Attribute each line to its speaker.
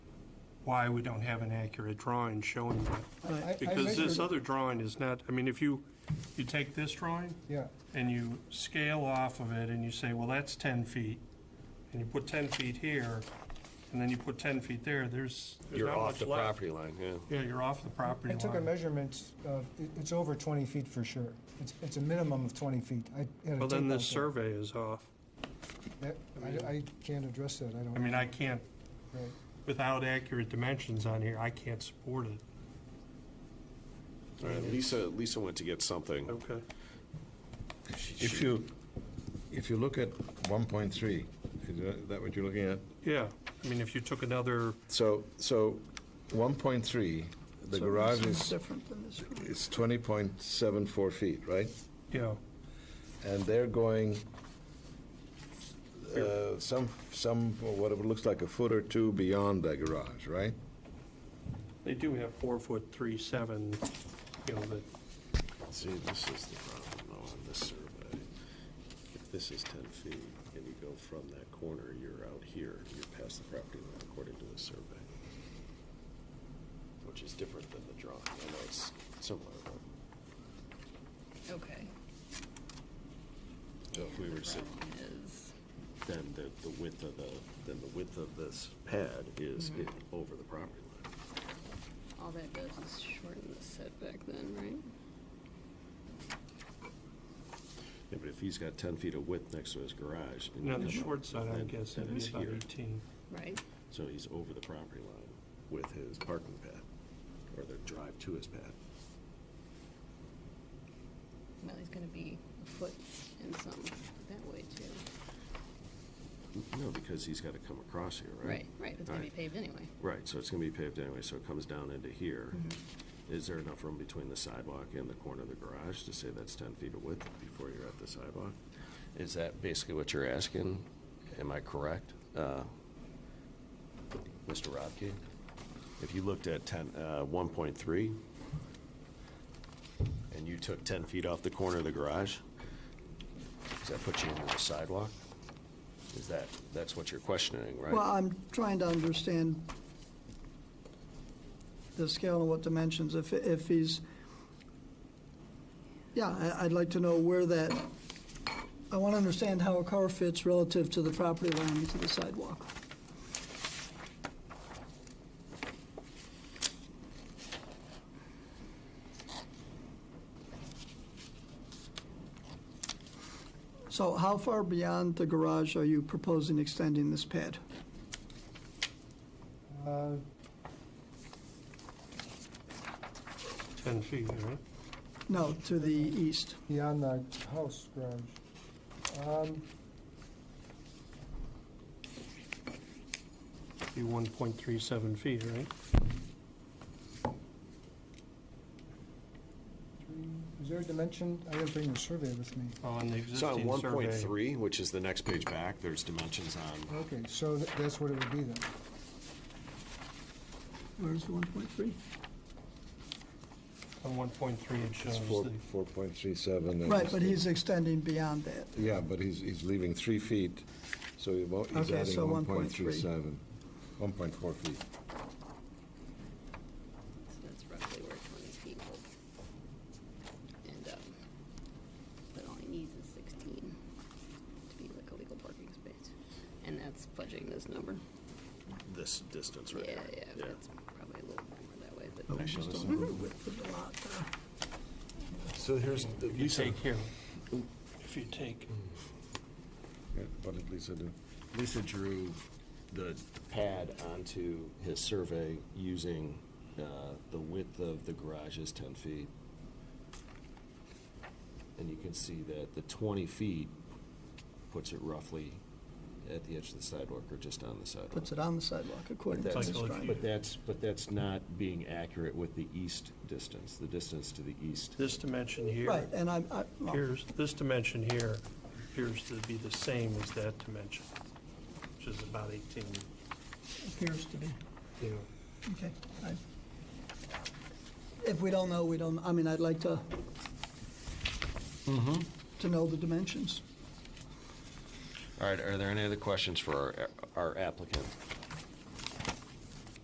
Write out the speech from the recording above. Speaker 1: why we don't have an accurate drawing showing that.
Speaker 2: I- I
Speaker 1: Because this
Speaker 2: measured-
Speaker 1: other drawing is not, I mean, if you, you take this drawing
Speaker 2: Yeah,
Speaker 1: and you scale off of it and you say, well, that's 10 feet, and you put 10 feet here, and then you put 10 feet there, there's there's
Speaker 3: You're
Speaker 1: not
Speaker 3: off
Speaker 1: much
Speaker 3: the
Speaker 1: left.
Speaker 3: property line, yeah.
Speaker 1: Yeah, you're off the
Speaker 2: I
Speaker 1: property
Speaker 2: took a
Speaker 1: line.
Speaker 2: measurement of, it- it's over 20 feet for sure. It's, it's a minimum of 20 feet. I had a
Speaker 1: Well, then
Speaker 2: tape
Speaker 1: this
Speaker 2: out
Speaker 1: survey is off.
Speaker 2: there. That- I, I can't address that, I don't.
Speaker 1: I mean, I can't,
Speaker 2: right.
Speaker 1: without accurate dimensions on here, I can't support it.
Speaker 3: All right, Lisa, Lisa went to get something.
Speaker 1: Okay.
Speaker 4: If you, if you look at 1.3, is that- that what you're looking at?
Speaker 1: Yeah, I mean, if you took another,
Speaker 4: So, so 1.3, the garage is,
Speaker 5: Different than this one.
Speaker 4: is 20.74 feet, right?
Speaker 1: yeah,
Speaker 4: And they're going uh, some, some, whatever, looks like a foot or two beyond that garage, right?
Speaker 1: they do have four foot three seven, you know, that,
Speaker 3: See, this is the problem though on this survey. If this is ten feet and you go from that corner, you're out here, you're past the property line according to the survey. Which is different than the drawing. I know it's similar, but
Speaker 5: Okay.
Speaker 3: so if we were to say,
Speaker 5: Problem is,
Speaker 3: then the, the width of the, then the width of this pad is
Speaker 1: Mm-hmm.
Speaker 3: it over the property line.
Speaker 5: all that does is shorten the setback then, right?
Speaker 3: Yeah, but if he's got ten feet of width next to his garage. and you
Speaker 1: on the
Speaker 3: come up,
Speaker 1: short side, I
Speaker 3: then-
Speaker 1: guess,
Speaker 3: then
Speaker 1: it'd be
Speaker 3: it's
Speaker 1: about
Speaker 3: here.
Speaker 1: eighteen.
Speaker 5: Right.
Speaker 3: So he's over the property line with his parking pad, or the drive to his pad.
Speaker 5: Well, he's gonna be a foot and some that way too.
Speaker 3: No, because he's gotta come across here, right?
Speaker 5: Right, right, it's gonna be
Speaker 3: Right.
Speaker 5: paved anyway.
Speaker 3: Right, so it's gonna be paved anyway, so it comes down into here. Is there enough room between the sidewalk and the corner of the garage to say that's ten feet of width before you're at the sidewalk? Is that basically what you're asking? Am I correct, uh, Mr. Rodkey? If you looked at ten, uh, one point three, and you took ten feet off the corner of the garage, does that put you into the sidewalk? Is that, that's what you're questioning, right?
Speaker 6: Well, I'm trying to understand the scale and what dimensions, if, if he's, yeah, I, I'd like to know where that, I want to understand how a car fits relative to the property line and to the sidewalk. So how far beyond the garage are you proposing extending this pad?
Speaker 2: Uh,
Speaker 1: Ten feet, right?
Speaker 6: No, to the east.
Speaker 2: Beyond the house garage. Um,
Speaker 1: Be one point three seven feet, right?
Speaker 2: Is there a dimension? I didn't bring the survey with me.
Speaker 1: On the
Speaker 3: So on
Speaker 1: existing
Speaker 3: one point
Speaker 1: survey.
Speaker 3: three, which is the next page back, there's dimensions on,
Speaker 2: Okay, so th- that's what it would be then.
Speaker 6: Where's the 1.3?
Speaker 1: On one point three, it
Speaker 4: It's
Speaker 1: shows
Speaker 4: four-
Speaker 1: the,
Speaker 4: 4.37. and-
Speaker 6: Uh, Right, but he's extending beyond that.
Speaker 4: Yeah, but he's, he's leaving three feet, so he won't- he's
Speaker 6: Okay,
Speaker 4: adding
Speaker 6: so
Speaker 4: 1.37, 1.4 feet.
Speaker 5: So that's roughly where twenty feet will end up. But all he needs is sixteen to be like a legal parking space. And that's fudging this number.
Speaker 3: this distance right
Speaker 5: Yeah,
Speaker 3: here.
Speaker 5: yeah, but it's probably a little more that way, but.
Speaker 3: Actually, this
Speaker 4: So here's,
Speaker 1: if you take here, if you take,
Speaker 3: Mm.
Speaker 4: What did Lisa do?
Speaker 3: Lisa drew the pad onto his survey using uh, the width of the garage is ten feet. And you can see that the twenty feet puts it roughly at the edge of the sidewalk or just on the sidewalk.
Speaker 6: Puts it on the sidewalk according to
Speaker 3: That's-
Speaker 6: this
Speaker 1: Like, like
Speaker 6: drawing.
Speaker 3: But that's, but that's not being accurate with the east distance, the distance to the east.
Speaker 1: this dimension here.
Speaker 6: Right, and I'm, I, well,
Speaker 1: Here's, this dimension here appears to be the same as that dimension, which is about eighteen,
Speaker 6: appears to be,
Speaker 1: you know.
Speaker 6: okay. I- If we don't know, we don't, I mean, I'd like to, to know the dimensions.
Speaker 3: All right, are there any other questions for our our applicant?